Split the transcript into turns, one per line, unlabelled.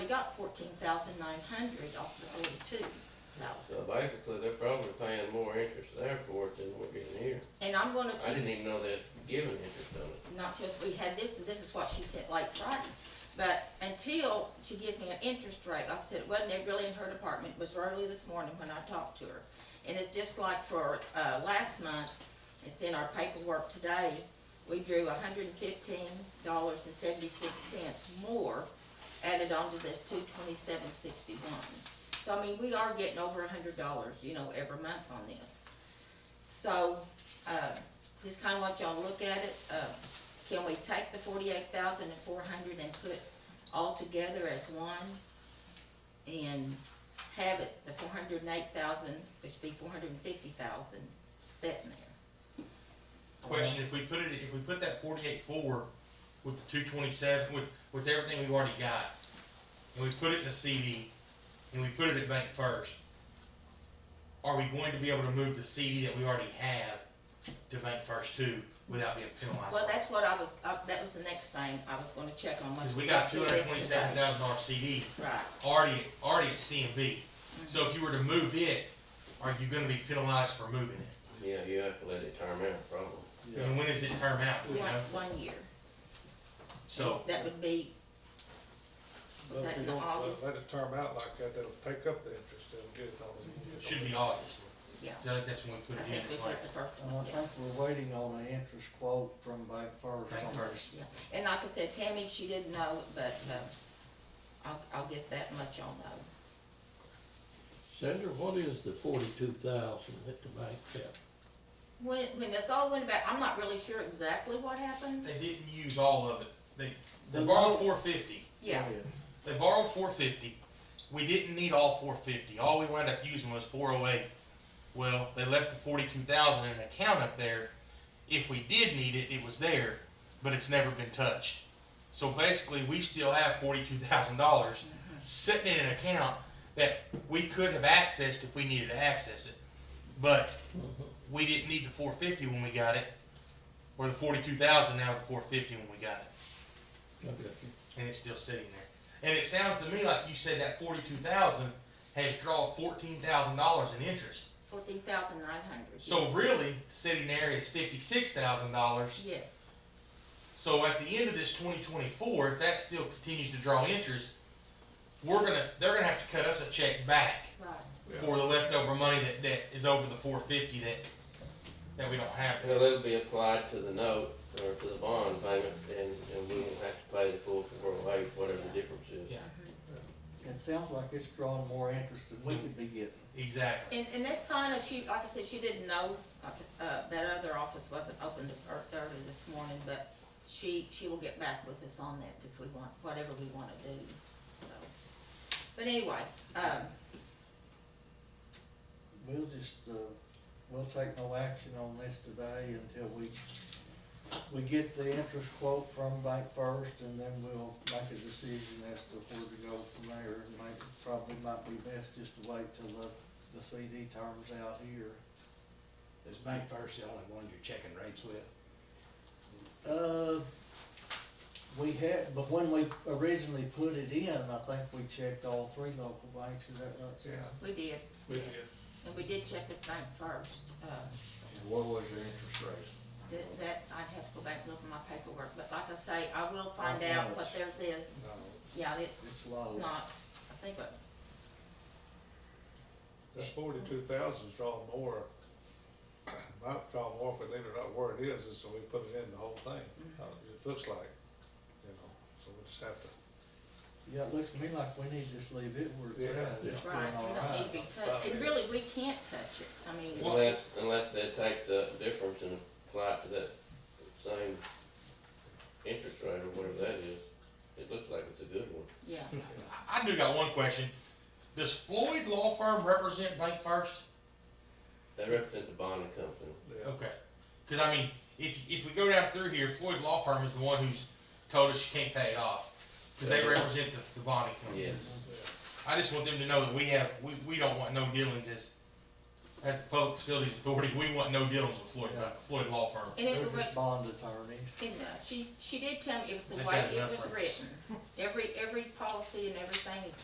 got fourteen thousand nine hundred off the forty-two thousand.
So basically, they're probably paying more interest there for it than we're getting here.
And I'm gonna,
I didn't even know they'd given interest on it.
not just, we had this, this is what she sent late Friday. But until she gives me an interest rate, like I said, it wasn't really in her department, it was early this morning when I talked to her. And it's just like for, uh, last month, it's in our paperwork today, we drew hundred and fifteen dollars and seventy-six cents more added onto this two twenty-seven sixty-one. So I mean, we are getting over hundred dollars, you know, every month on this. So, uh, this kinda want y'all to look at it, uh, can we take the forty-eight thousand and four hundred and put all together as one? And have it, the four hundred and eight thousand, which would be four hundred and fifty thousand, sitting there.
Question, if we put it, if we put that forty-eight four with the two twenty-seven, with, with everything we've already got, and we put it in a CD, and we put it at Bank First, are we going to be able to move the CD that we already have to Bank First too, without being penalized?
Well, that's what I was, uh, that was the next thing I was gonna check on. once
Cause we got two
through
hundred
this
twenty-seven
today.
thousand dollar CD
Right,
already, already at CMB. So if you were to move it, are you gonna be penalized for moving it?
Yeah, you have to let it term out, probably.
And when does it term out, you know?
one, one year,
So.
that would be, was
Well,
that
if you
in
don't
August?
Let us term out like that, that'll take up the interest, that'll get it all.
Should be August.
Yeah.
So I think that's when we put
I
it in,
think we
it's
put
like,
the first
And I
one, yeah.
think we're waiting on an interest quote from Bank First.
Bank
on
First.
this.
Yeah, and like I said, Tammy, she didn't know, but, uh, I'll, I'll get that much on though.
Sandra, what is the forty-two thousand that the bank kept?
When, when this all went about, I'm not really sure exactly what happened.
they didn't use all of it. They, they
The
borrowed
low-
four fifty.
Yeah,
They borrowed four fifty. We didn't need all four fifty. All we wound up using was four oh eight. Well, they left the forty-two thousand in an account up there. If we did need it, it was there, but it's never been touched. So basically, we still have forty-two thousand dollars sitting in an account that we could have accessed if we needed to access it. But we didn't need the four fifty when we got it, or the forty-two thousand now with the four fifty when we got it
Okay.
and it's still sitting there. And it sounds to me like you said that forty-two thousand has drawn fourteen thousand dollars in interest.
fourteen thousand nine hundred.
So really, sitting there is fifty-six thousand dollars.
Yes,
So at the end of this twenty twenty-four, if that still continues to draw interest, we're gonna, they're gonna have to cut us a check back
right.
for the leftover money that, that is over the four fifty that, that we don't have. there.
Well, it'll be applied to the note or to the bond payment, and, and we won't have to pay the full four oh eight, whatever the difference is.
Yeah,
It sounds like it's drawing more interest than we could be getting.
exactly.
And, and that's kind of, she, like I said, she didn't know, like, uh, that other office wasn't open this, ear- early this morning, but she, she will get back with us on that if we want, whatever we wanna do, so. But anyway, um,
We'll just, uh, we'll take no action on this today until we, we get the interest quote from Bank First, and then we'll make a decision as to where to go from there. And maybe, probably might be best just to wait till the, the CD terms out here.
Is Bank First the only one you're checking rates with?
Uh, we had, but when we originally put it in, I think we checked all three local banks, is that right, Sarah?
we did,
We did.
and we did check with Bank First, uh,
And what was your interest rate?
That, that, I'd have to go back and look at my paperwork, but like I say, I will find out what theirs is.
No,
Yeah, it's,
it's
it's
low.
not, I think, but,
This forty-two thousand's drawn more, might draw more if we leave it out where it is, and so we put it in the whole thing, how it looks like, you know, so we just have to.
Yeah, it looks to me like we need to just leave it where it's
Yeah.
at. It's doing
right,
all
we don't need to
right.
be touched, and really, we can't touch it, I mean.
Unless, unless they take the difference and apply it to that same interest rate or whatever that is. It looks like it's a good one.
Yeah,
I I do got one question. Does Floyd Law Firm represent Bank First?
They represent the bonding company.
yeah.
Okay. Because, I mean, if, if we go down through here, Floyd Law Firm is the one who's told us she can't pay it off. Because they represent the, the bonding company.
Yes.
I just want them to know that we have, we, we don't want no dealings as as the Public Facilities Authority, we want no dealings with Floyd, uh, Floyd Law Firm.
And
They're
it was,
just bond attorneys.
and uh, she, she did tell me it was
They
the way
got
it
enough
was
for us.
written. Every, every policy and everything is